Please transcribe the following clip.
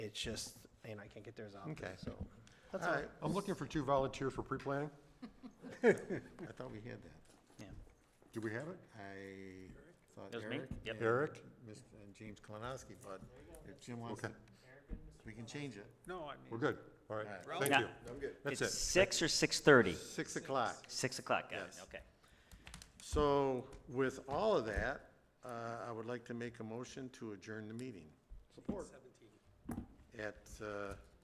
It's just, and I can't get there as often, Okay. so. That's All all. right. I'm looking for two volunteers for pre-planning. I thought we had that. Yeah. Do we have it? I thought It was me? Eric. Yep. and Eric? Mr. and James Kalinowski, but if Jim wants to, Okay. we can change it. No, I We're mean, good. All right. All Thank Yeah. you. That's It's it. six or six-thirty? Six o'clock. Six o'clock, got it, Yes. okay. So with all of that, uh, I would like to make a motion to adjourn the meeting seventeen. at, uh,